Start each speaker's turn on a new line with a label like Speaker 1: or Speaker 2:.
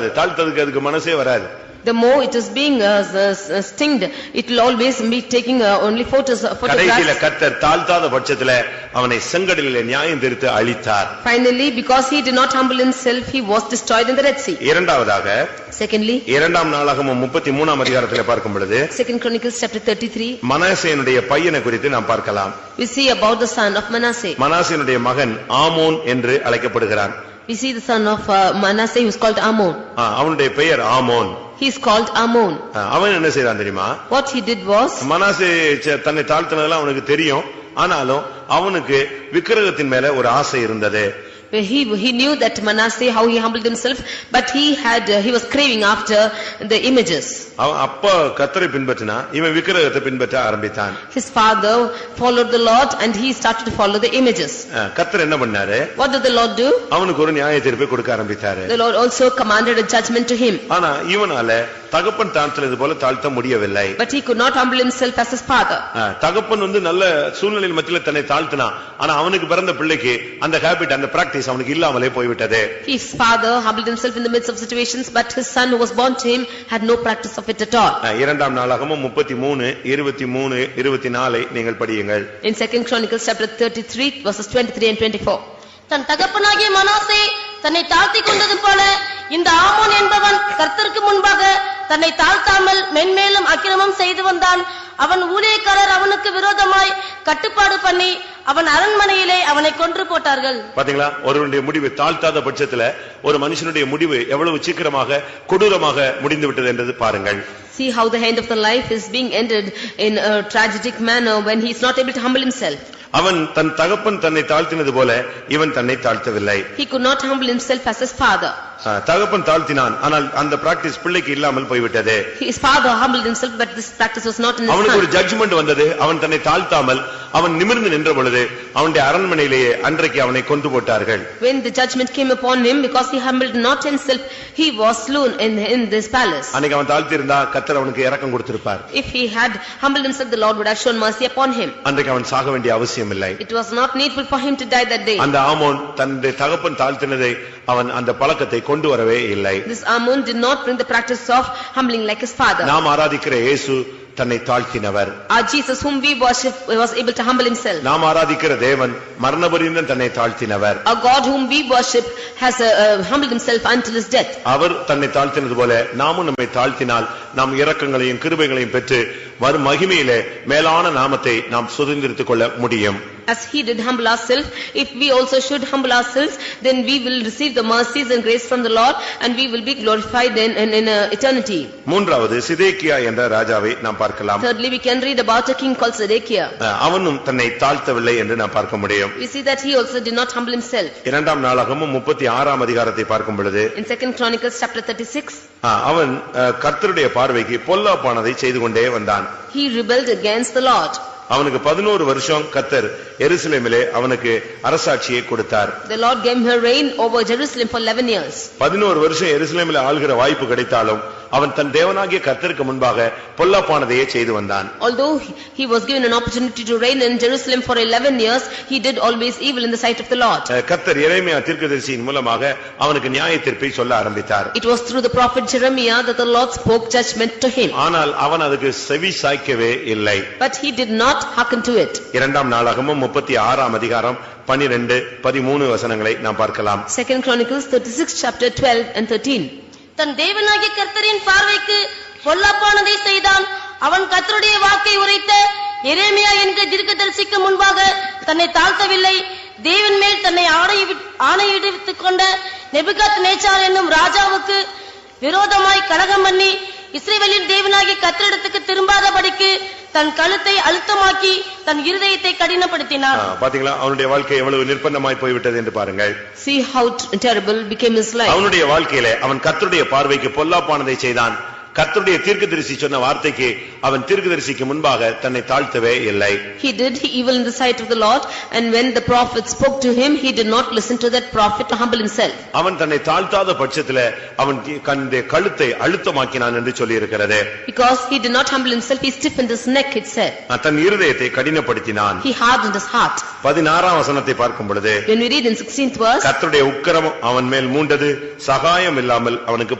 Speaker 1: அது தாழ்த்ததுக்கு அதுக்கு மனசே வராது
Speaker 2: The more it is being uh, s- s- stinged, it will always be taking uh, only photos,
Speaker 1: கடைசியில
Speaker 2: photographs.
Speaker 1: கர்த்தர் தாழ்த்தாத பட்சத்துல அவனை செங்கடலிலே நியாயம் தீர்த்து அழித்தார்
Speaker 2: Finally, because he did not humble himself, he was destroyed in the Red Sea.
Speaker 1: இரண்டாவதாக
Speaker 2: Secondly,
Speaker 1: இரண்டாம் நாளாகமும் முப்பத்தி மூணாம் அதிகாரத்திலே பார்க்கும் பொழுது
Speaker 2: Second Chronicles chapter thirty-three,
Speaker 1: மனாசேனுடைய பையனை குறித்து நாம் பார்க்கலாம்
Speaker 2: we see about the son of Manasseh.
Speaker 1: மனாசேனுடைய மகன் ஆமோன் என்று அழைக்கப்படுகிறான்
Speaker 2: We see the son of uh, Manasseh who is called Ammon.
Speaker 1: ஆ, அவனுடைய பெயர் ஆமோன்
Speaker 2: He is called Ammon.
Speaker 1: ஆ, அவன் என்ன செய்றான் தெரியுமா
Speaker 2: What he did was,
Speaker 1: Manasseh ச- தன்னை தாழ்த்தினதெல்லாம் அவனுக்கு தெரியும் ஆனாலும் அவனுக்கு விக்கிரகத்தின் மேல ஒரு ஆசை இருந்தது
Speaker 2: he he knew that Manasseh, how he humbled himself, but he had, uh, he was craving after the images.
Speaker 1: அவன் அப்பா கத்தரை பின்பற்றினா இவன் விக்கிரகத்தை பின்பற்ற ஆரம்பித்தான்
Speaker 2: His father followed the Lord and he started to follow the images.
Speaker 1: ஆ, கத்தர் என்ன பண்ணாரு
Speaker 2: What did the Lord do?
Speaker 1: அவனுக்கு ஒரு நியாய தீர்ப்பை கொடுக்க ஆரம்பித்தாரு
Speaker 2: The Lord also commanded a judgment to him,
Speaker 1: ஆனா இவனால தகப்பன் தாழ்த்தினது போல தாழ்த்த முடியவில்லை
Speaker 2: but he could not humble himself as his father.
Speaker 1: ஆ, தகப்பன் வந்து நல்ல சூழ்நிலையில் மத்தியில தன்னை தாழ்த்தினான் ஆனா அவனுக்கு பிறந்த பிள்ளைக்கு அந்த ஹேபிட் அந்த பிராக்டிஸ் அவனுக்கு இல்லாமலே போய்விட்டது
Speaker 2: His father humbled himself in the midst of situations, but his son who was born to him had no practice of it at all.
Speaker 1: ஆ, இரண்டாம் நாளாகமும் முப்பத்தி மூணு இருபத்தி மூணு இருபத்தி நாலை நீங்கள் படியுங்கள்
Speaker 2: In second Chronicles chapter thirty-three verses twenty-three and twenty-four.
Speaker 3: தன் தகப்பனாகிய மனாசே தன்னை தாழ்த்திக் கொண்டது போல இந்த ஆமோன் என்பவன் கர்த்தருக்கு முன்பாக தன்னை தாழ்த்தாமல் மென்மேலும் அக்கிரமம் செய்து வந்தான் அவன் ஊழியக்காரர் அவனுக்கு விரோதமாய் கட்டுப்பாடு பண்ணி அவன் அரண்மனையிலே அவனை கொன்று போட்டார்கள்
Speaker 1: பாத்தீங்களா ஒருவனுடைய முடிவு தாழ்த்தாத பட்சத்துல ஒரு மனுஷனுடைய முடிவு எவ்வளவு சீக்கிரமாக கொடூரமாக முடிந்து விட்டது என்றது பாருங்கள்
Speaker 2: See how the end of the life is being ended in a tragic manner when he is not able to humble himself.
Speaker 1: அவன் தன் தகப்பன் தன்னை தாழ்த்தினது போல இவன் தன்னை தாழ்த்தவில்லை
Speaker 2: He could not humble himself as his father.
Speaker 1: ஆ, தகப்பன் தாழ்த்தினான் ஆனால் அந்த பிராக்டிஸ் பிள்ளைக்கு இல்லாமல் போய்விட்டது
Speaker 2: His father humbled himself, but this practice was not in his
Speaker 1: அவனுக்கு ஒரு
Speaker 2: son.
Speaker 1: ஜட்ஜ்மெண்ட் வந்தது அவன் தன்னை தாழ்த்தாமல் அவன் நிமிர்ந்து நின்ற பொழுது அவனுடைய அரண்மனையிலேயே அன்றைக்கு அவனை கொண்டு போட்டார்கள்
Speaker 2: When the judgment came upon him, because he humbled not himself, he was slain in, in this palace.
Speaker 1: அன்னைக்கு அவன் தாழ்த்திருந்தா கத்தர் அவனுக்கு இறக்கம் கொடுத்திருப்பார்
Speaker 2: If he had humbled himself, the Lord would have shown mercy upon him.
Speaker 1: அன்றைக்கு அவன் சாக வேண்டிய அவசியம் இல்லை
Speaker 2: It was not needful for him to die that day.
Speaker 1: அந்த ஆமோன் தன்னுடைய தகப்பன் தாழ்த்தினதை அவன் அந்த பழக்கத்தை கொண்டு வரவே இல்லை
Speaker 2: This Ammon did not bring the practice of humbling like his father.
Speaker 1: நாம் ஆராதிக்கிற இயேசு தன்னை தாழ்த்தினவர்
Speaker 2: Our Jesus whom we worship was able to humble himself.
Speaker 1: நாம் ஆராதிக்கிற தேவன் மரணபரியந்தம் தன்னை தாழ்த்தினவர்
Speaker 2: Our God whom we worship has uh, uh, humbled himself until his death.
Speaker 1: அவர் தன்னை தாழ்த்தினது போல நாமும் நம்மை தாழ்த்தினால் நாம் இரக்கங்களையும் கிருபைகளையும் பெற்று வரும் மகிமையிலே மேலான நாமத்தை நாம் சுதந்திரித்துக் கொள்ள முடியும்
Speaker 2: As he did humble ourselves, if we also should humble ourselves, then we will receive the mercies and grace from the Lord and we will be glorified in, in, in uh, eternity.
Speaker 1: மூன்றாவது சிதேக்கியா என்ற ராஜாவை நாம் பார்க்கலாம்
Speaker 2: Thirdly, we can read about a king called Zedekiah.
Speaker 1: அஹ், அவனும் தன்னை தாழ்த்தவில்லை என்று நாம் பார்க்க முடியும்
Speaker 2: We see that he also did not humble himself.
Speaker 1: இரண்டாம் நாளாகமும் முப்பத்தி ஆறாம் அதிகாரத்தை பார்க்கும் பொழுது
Speaker 2: In second Chronicles chapter thirty-six,
Speaker 1: அஹ், அவன் அஹ், கர்த்தருடைய பார்வைக்கு பொல்லாப்பானதை செய்து கொண்டே வந்தான்
Speaker 2: he rebelled against the Lord.
Speaker 1: அவனுக்கு பதினோரு வருஷம் கத்தர் எருசலேமிலே அவனுக்கு அரசாட்சியை கொடுத்தார்
Speaker 2: The Lord gave her reign over Jerusalem for eleven years.
Speaker 1: பதினோரு வருஷம் எருசலேமில் ஆள்கிற வாய்ப்பு கிடைத்தாலும் அவன் தன் தேவனாகிய கர்த்தருக்கு முன்பாக பொல்லாப்பானதையே செய்து வந்தான்
Speaker 2: Although he he was given an opportunity to reign in Jerusalem for eleven years, he did always evil in the sight of the Lord.
Speaker 1: அஹ் கர்த்தர் இறைமையா தீர்க்கதரிசியின் மூலமாக அவனுக்கு நியாய தீர்ப்பை சொல்ல ஆரம்பித்தார்
Speaker 2: It was through the prophet Jeremiah that the Lord spoke judgment to him,
Speaker 1: ஆனால் அவன் அதுக்கு செவி சாய்க்கவே இல்லை
Speaker 2: but he did not hearken to it.
Speaker 1: இரண்டாம் நாளாகமும் முப்பத்தி ஆறாம் அதிகாரம் பனிரெண்டு பதிமூணு வசனங்களை நாம் பார்க்கலாம்
Speaker 2: Second Chronicles thirty-six chapter twelve and thirteen.
Speaker 3: தன் தேவனாகிய கர்த்தரின் பார்வைக்கு பொல்லாப்பானதை செய்தான் அவன் கர்த்தருடைய வாக்கை உரைத்த எரேமியா என்கிற தீர்க்கதரிசிக்கு முன்பாக தன்னை தாழ்த்தவில்லை தேவன் மேல் தன்னை ஆணையிடு- ஆணையிடுவித்துக் கொண்ட நெபுகாத் நேச்சார் என்னும் ராஜாவுக்கு விரோதமாய் கலகம் பண்ணி இஸ்ரேவேலின் தேவனாகிய கர்த்தரிடத்துக்கு திரும்பாதபடிக்கு தன் கழுத்தை அழுத்தமாக்கி தன் இருதயத்தை கடினப்படுத்தினான்
Speaker 1: அஹ் பாத்தீங்களா அவனுடைய வாழ்க்கை எவ்வளவு நிர்பந்தமாய் போய்விட்டது என்று பாருங்கள்
Speaker 2: See how t- terrible became his life.
Speaker 1: அவனுடைய வாழ்க்கையிலே அவன் கர்த்தருடைய பார்வைக்கு பொல்லாப்பானதை செய்தான் கர்த்தருடைய தீர்க்கதரிசி சொன்ன வார்த்தைக்கு அவன் தீர்க்கதரிசிக்கு முன்பாக தன்னை தாழ்த்தவே இல்லை
Speaker 2: He did evil in the sight of the Lord, and when the prophet spoke to him, he did not listen to that prophet to humble himself.
Speaker 1: அவன் தன்னை தாழ்த்தாத பட்சத்துல அவன் கண்டு கழுத்தை அழுத்தமாக்கினான் என்று சொல்லியிருக்கிறது
Speaker 2: Because he did not humble himself, he stiffened his neck, it said.
Speaker 1: தன் இருதயத்தை கடினப்படுத்தினான்
Speaker 2: He hardened his heart.
Speaker 1: பதினாறாம் வசனத்தை பார்க்கும் பொழுது
Speaker 2: When we read in 16th verse,
Speaker 1: கர்த்தருடைய உக்கிரம் அவன் மேல் மூண்டது சகாயம் இல்லாமல் அவனுக்கு